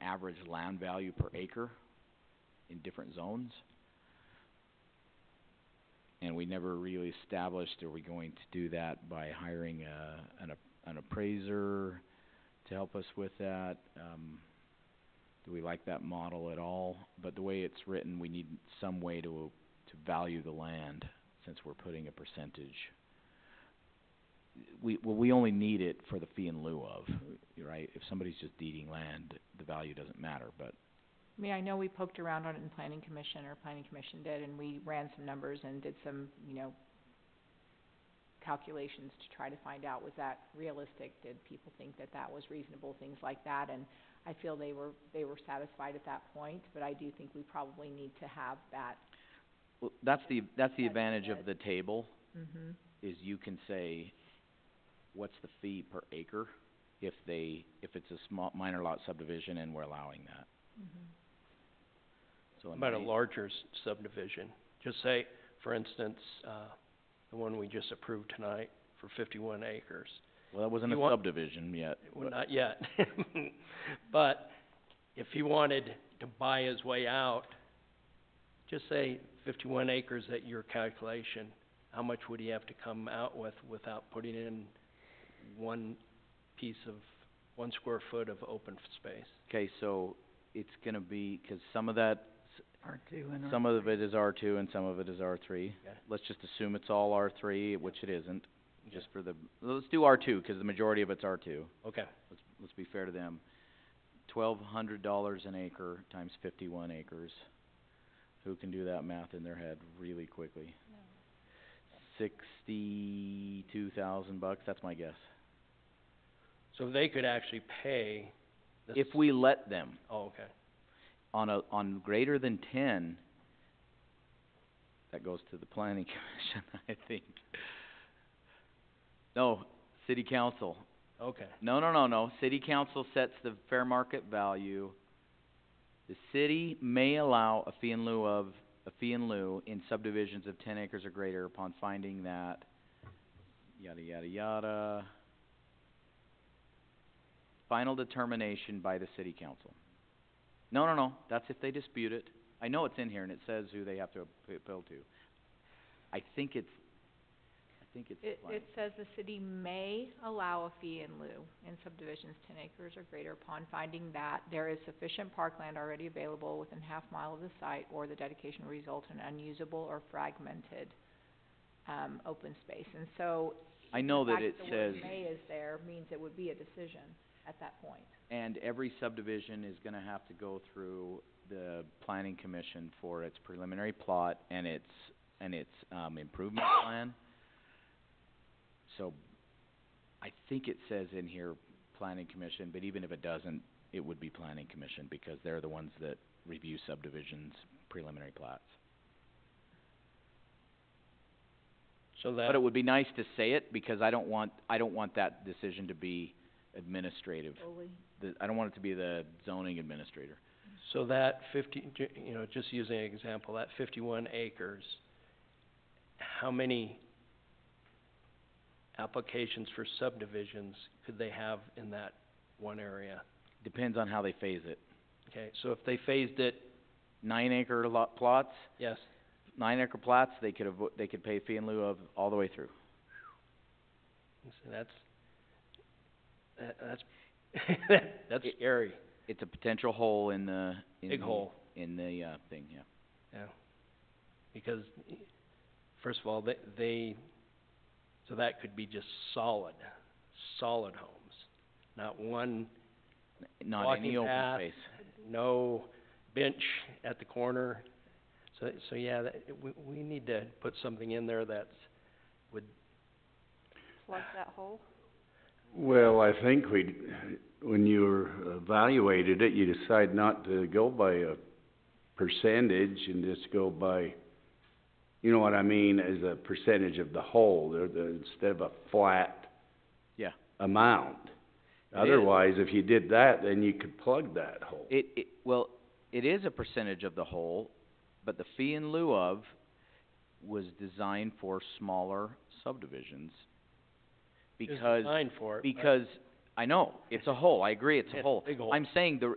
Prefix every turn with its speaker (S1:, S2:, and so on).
S1: average land value per acre in different zones. And we never really established, are we going to do that by hiring a, an ap- an appraiser to help us with that? Um, do we like that model at all? But the way it's written, we need some way to, to value the land, since we're putting a percentage. We, well, we only need it for the fee in lieu of, right? If somebody's just deeding land, the value doesn't matter, but
S2: I mean, I know we poked around on it in planning commission, or planning commission did, and we ran some numbers and did some, you know, calculations to try to find out, was that realistic? Did people think that that was reasonable, things like that? And I feel they were, they were satisfied at that point, but I do think we probably need to have that,
S1: Well, that's the, that's the
S2: That's
S1: advantage of
S2: good.
S1: the table,
S2: mhm,
S1: is you can say, what's the fee per acre if they, if it's a small, minor lot subdivision and we're allowing that?
S2: mhm.
S1: So in
S3: About a
S1: my-
S3: larger s- subdivision, just say, for instance, uh, the one we just approved tonight for fifty-one acres.
S1: Well, that wasn't
S3: you
S1: a
S3: want-
S1: subdivision yet,
S3: Well,
S1: but-
S3: not yet, but if he wanted to buy his way out, just say fifty-one acres at your calculation, how much would he have to come out with without putting in one piece of, one square foot of open f- space?
S1: okay, so it's gonna be, 'cause some of that,
S3: R two and
S1: some of it is R two and some of it is R three.
S3: Okay.
S1: Let's just assume it's all R three, which it isn't, just for the, let's do R two, 'cause the majority of it's R two.
S3: Okay,
S1: let's, let's be fair to them, twelve hundred dollars an acre times fifty-one acres. Who can do that math in their head really quickly? Sixty-two thousand bucks, that's my guess.
S3: so they could actually pay this-
S1: If we let them,
S3: Oh, okay.
S1: on a, on greater than ten, that goes to the planning commission, I think. No, city council,
S3: Okay,
S1: No, no, no, no, city council sets the fair market value. The city may allow a fee in lieu of, a fee in lieu in subdivisions of ten acres or greater upon finding that, yada, yada, yada. Final determination by the city council. No, no, no, that's if they dispute it. I know it's in here and it says who they have to appeal to. I think it's, I think it's
S2: It,
S1: like-
S2: it says the city may allow a fee in lieu in subdivisions ten acres or greater upon finding that there is sufficient parkland already available within half mile of the site or the dedication will result in unusable or fragmented, um, open space. And so,
S1: I know
S2: the
S1: that
S2: fact
S1: it
S2: that the
S1: says.
S2: word may is there means it would be a decision at that point.
S1: And every subdivision is gonna have to go through the planning commission for its preliminary plot and its, and its, um, improvement plan. So, I think it says in here, planning commission, but even if it doesn't, it would be planning commission because they're the ones that review subdivisions' preliminary plots.
S3: so that.
S1: But it would be nice to say it because I don't want, I don't want that decision to be administrative.
S2: Fully.
S1: The, I don't want it to be the zoning administrator.
S3: So that fifty, ju- you know, just using an example, that fifty-one acres, how many applications for subdivisions could they have in that one area?
S1: Depends on how they phase it.
S3: Okay, so if they phased it,
S1: nine acre lot plots,
S3: yes,
S1: nine acre plots, they could avo- they could pay fee in lieu of all the way through.
S3: so that's, that, that's, that's
S1: It-
S3: scary,
S1: It's a potential hole in the, in the-
S3: big hole,
S1: In the, uh, thing, yeah.
S3: yeah. Because, first of all, they, they, so that could be just solid, solid homes, not one
S1: N- Not any
S3: Walking
S1: open
S3: path.
S1: space.
S3: no bench at the corner. So, so yeah, that, we, we need to put something in there that's, would,
S2: Plug that hole?
S4: Well, I think we, when you evaluated it, you decide not to go by a percentage and just go by, you know what I mean, as a percentage of the whole, the, the, instead of a flat
S1: Yeah.
S4: amount.
S1: It is.
S4: Otherwise, if you did that, then you could plug that hole.
S1: It, it, well, it is a percentage of the whole, but the fee in lieu of was designed for smaller subdivisions.
S3: is
S1: Because,
S3: designed for it, but-
S1: because, I know, it's a hole, I agree, it's
S3: It's
S1: a
S3: a
S1: hole.
S3: big hole.
S1: I'm saying the,